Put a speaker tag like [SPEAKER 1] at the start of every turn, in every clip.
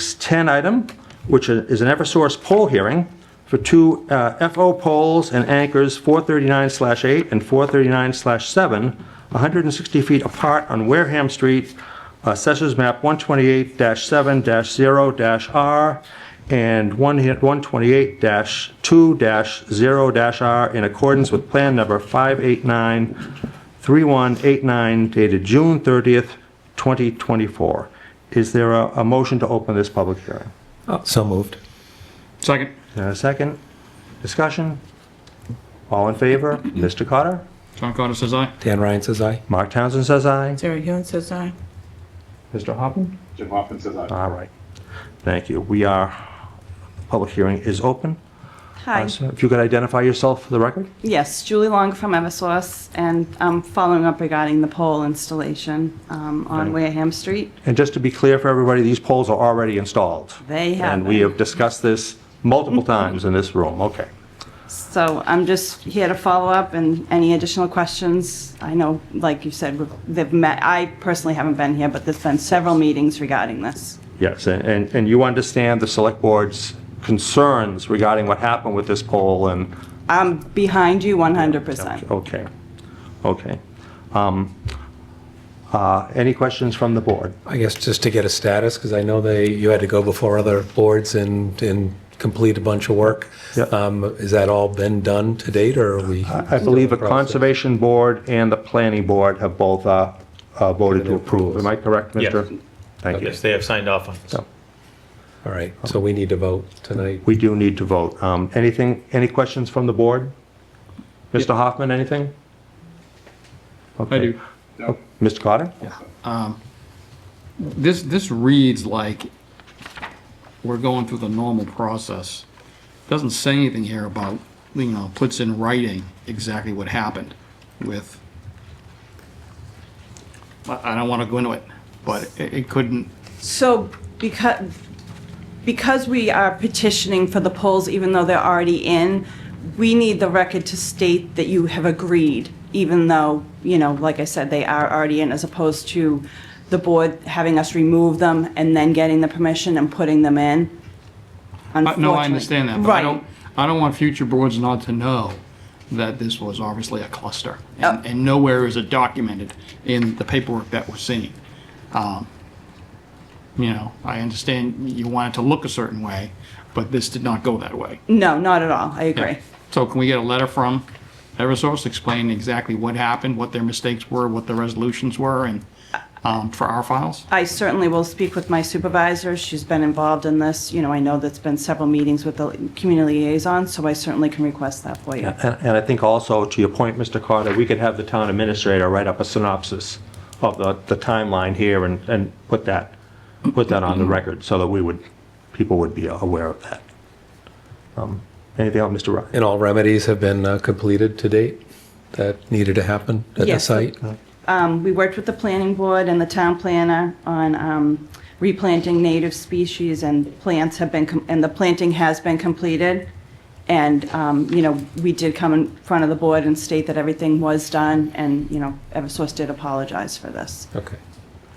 [SPEAKER 1] 610 item, which is an Eversource poll hearing for two uh, FO poles and anchors 439/8 and 439/7, 160 feet apart on Wareham Street, uh, Assessors Map 128-7-0-R and 128-2-0-R in accordance with Plan Number 589-3189 dated June 30th, 2024. Is there a, a motion to open this public hearing?
[SPEAKER 2] So moved.
[SPEAKER 3] Second.
[SPEAKER 1] Is there a second? Discussion? All in favor? Mr. Cotter?
[SPEAKER 3] John Carter says aye.
[SPEAKER 2] Dan Ryan says aye.
[SPEAKER 1] Mark Townsend says aye.
[SPEAKER 4] Sarah Young says aye.
[SPEAKER 1] Mr. Hoppen?
[SPEAKER 5] Jim Hoffman says aye.
[SPEAKER 1] All right. Thank you. We are, the public hearing is open.
[SPEAKER 6] Hi,
[SPEAKER 1] Uh, so If you could identify yourself for the record?
[SPEAKER 6] yes, Julie Long from Eversource, and I'm following up regarding the pole installation um, on Wareham Street.
[SPEAKER 1] And just to be clear for everybody, these poles are already installed.
[SPEAKER 6] They have
[SPEAKER 1] And we
[SPEAKER 6] been.
[SPEAKER 1] have discussed this multiple times in this room. Okay.
[SPEAKER 6] So I'm just here to follow up and any additional questions. I know, like you said, we've- they've met, I personally haven't been here, but there's been several meetings regarding this.
[SPEAKER 1] Yes, and- and, and you understand the select board's concerns regarding what happened with this pole and,
[SPEAKER 6] I'm behind you 100%.
[SPEAKER 1] okay, okay. Um, uh, Any questions from the board?
[SPEAKER 2] I guess just to get a status, because I know they, you had to go before other boards and, and complete a bunch of work.
[SPEAKER 1] Yeah.
[SPEAKER 2] Um, Has that all been done to date, or are we?
[SPEAKER 1] I believe the Conservation Board and the Planning Board have both uh, uh, voted to approve. Am I correct,
[SPEAKER 7] Yes.
[SPEAKER 1] Mr.? Thank you.
[SPEAKER 7] Yes, they have signed off on this.
[SPEAKER 1] So,
[SPEAKER 2] All right, so we need to vote tonight.
[SPEAKER 1] We do need to vote. Um, Anything, any questions from the board? Mr. Hoffman, anything?
[SPEAKER 3] I do.
[SPEAKER 5] No.
[SPEAKER 1] Mr. Carter?
[SPEAKER 3] This, this reads like we're going through the normal process. Doesn't say anything here about, you know, puts in writing exactly what happened with, I, I don't want to go into it, but it, it couldn't,
[SPEAKER 6] So because, because we are petitioning for the polls, even though they're already in, we need the record to state that you have agreed, even though, you know, like I said, they are already in, as opposed to the board having us remove them and then getting the permission and putting them in.
[SPEAKER 3] I- no, I
[SPEAKER 6] Unfortunately-
[SPEAKER 3] understand that, but I
[SPEAKER 6] Right.
[SPEAKER 3] don't, I don't want future boards not to know that this was obviously a cluster.
[SPEAKER 6] Oh.
[SPEAKER 3] And and nowhere is it documented in the paperwork that we're seeing. Um, You know, I understand you want it to look a certain way, but this did not go that way.
[SPEAKER 6] No, not at all. I agree.
[SPEAKER 3] So can we get a letter from Eversource explaining exactly what happened, what their mistakes were, what the resolutions were, and um, for our files?
[SPEAKER 6] I certainly will speak with my supervisor. She's been involved in this. You know, I know that's been several meetings with the community liaison, so I certainly can request that for you.
[SPEAKER 1] And and I think also, to your point, Mr. Carter, we could have the town administrator write up a synopsis of the the timeline here and, and put that, put that on the record so that we would, people would be aware of that. Um, Anything else, Mr. Ryan?
[SPEAKER 2] And all remedies have been uh, completed to date that needed to happen at the
[SPEAKER 6] Yes.
[SPEAKER 2] site?
[SPEAKER 6] Um, We worked with the planning board and the town planner on um, replanting native species and plants have been, com- and the planting has been completed. And, um, you know, we did come in front of the board and state that everything was done and, you know, Eversource did apologize for this.
[SPEAKER 2] Okay,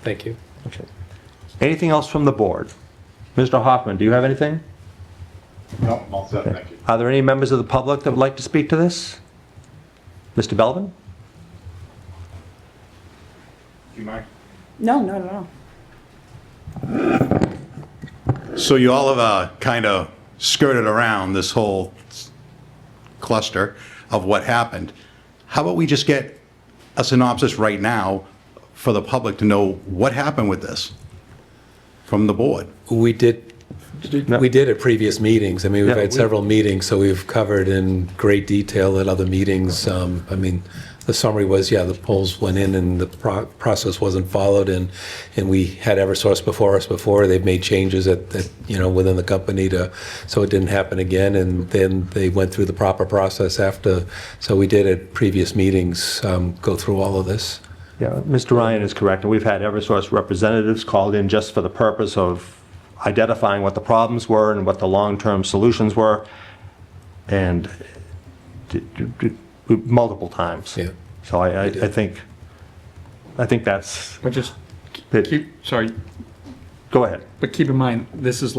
[SPEAKER 2] thank you.
[SPEAKER 1] Okay. Anything else from the board? Mr. Hoffman, do you have anything?
[SPEAKER 5] No, I'm all set, thank you.
[SPEAKER 1] Are there any members of the public that would like to speak to this? Mr. Belvin?
[SPEAKER 5] Do you mind?
[SPEAKER 6] No, no, no, no.
[SPEAKER 8] So you all have uh, kind of skirted around this whole s- cluster of what happened. How about we just get a synopsis right now for the public to know what happened with this from the board?
[SPEAKER 2] We did, we did at previous meetings. I mean, we've
[SPEAKER 1] Yeah,
[SPEAKER 2] had
[SPEAKER 1] we-
[SPEAKER 2] several meetings, so we've covered in great detail at other meetings. Um, I mean, the summary was, yeah, the polls went in and the pro- process wasn't followed, and, and we had Eversource before us before. They've made changes at, that, you know, within the company to, so it didn't happen again, and then they went through the proper process after. So we did at previous meetings um, go through all of this.
[SPEAKER 1] Yeah, Mr. Ryan is correct, and we've had Eversource representatives called in just for the purpose of identifying what the problems were and what the long-term solutions were, and d- d- d- multiple times.
[SPEAKER 2] Yeah.
[SPEAKER 1] So I, I I think, I think that's,
[SPEAKER 3] But just
[SPEAKER 1] that-
[SPEAKER 3] keep, sorry,
[SPEAKER 1] Go ahead.
[SPEAKER 3] But keep in mind, this is